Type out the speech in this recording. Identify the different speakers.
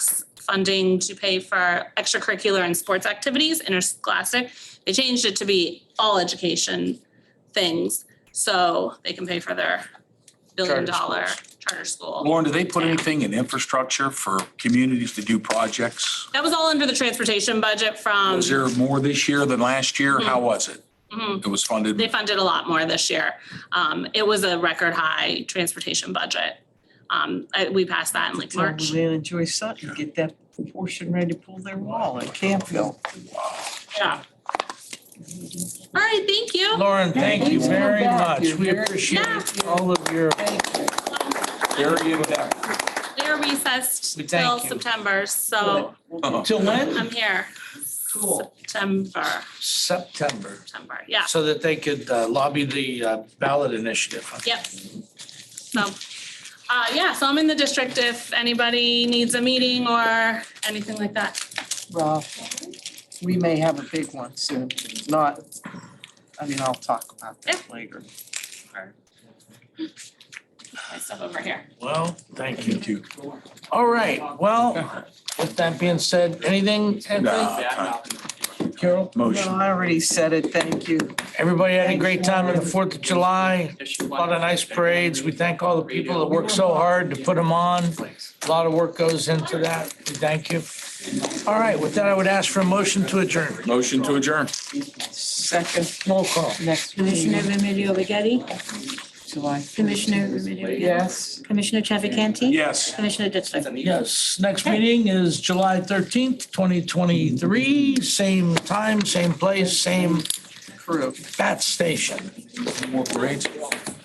Speaker 1: funding to pay for extracurricular and sports activities, interscholastic. They changed it to be all education things, so they can pay for their billion dollar charter school.
Speaker 2: Lauren, do they put anything in infrastructure for communities to do projects?
Speaker 1: That was all under the transportation budget from,
Speaker 2: Was there more this year than last year? How was it?
Speaker 1: Mhm.
Speaker 2: It was
Speaker 1: they
Speaker 2: funded,
Speaker 1: funded a lot more this year. Um, it was a record high transportation budget. Um, I- we passed that in like
Speaker 3: Tell
Speaker 1: March.
Speaker 3: Luann and Joy Sutton, get that portion ready to pull their wall at Campville.
Speaker 1: Yeah. All right, thank you.
Speaker 4: Lauren, thank you very much. We
Speaker 1: Yeah.
Speaker 4: appreciate all of your very in-depth.
Speaker 1: They're recessed
Speaker 4: We
Speaker 1: till
Speaker 4: thank you.
Speaker 1: September, so
Speaker 4: Till when?
Speaker 1: I'm here.
Speaker 3: Cool.
Speaker 1: September,
Speaker 4: September,
Speaker 1: September, yeah,
Speaker 4: so that they could uh, lobby the uh, ballot initiative.
Speaker 1: yep. So, uh, yeah, so I'm in the district if anybody needs a meeting or anything like that.
Speaker 3: Well, we may have a big one soon, not, I mean, I'll talk about that later.
Speaker 1: My stuff over here.
Speaker 4: Well, thank you.
Speaker 2: thank you.
Speaker 4: All right, well, with that being said, anything, Anthony?
Speaker 2: Nah,
Speaker 4: Carol?
Speaker 3: No,
Speaker 2: Motion.
Speaker 3: I already said it, thank you.
Speaker 4: Everybody had a great time on the Fourth of July. A lot of nice parades. We thank all the people that worked so hard to put them on. A lot of work goes into that. We Thank you. All right, with that, I would ask for a motion to adjourn.
Speaker 2: Motion to adjourn.
Speaker 3: Second,
Speaker 4: Roll call.
Speaker 3: next
Speaker 5: Commissioner
Speaker 3: meeting,
Speaker 5: Remilio Agati,
Speaker 3: July.
Speaker 5: Commissioner Remilio.
Speaker 3: Yes.
Speaker 5: Commissioner Chafficanty.
Speaker 2: Yes.
Speaker 5: Commissioner Ditzler.
Speaker 4: Yes, next meeting is July thirteenth, twenty twenty-three, same time, same place, same
Speaker 3: Approved.
Speaker 4: bat station.
Speaker 2: More parades.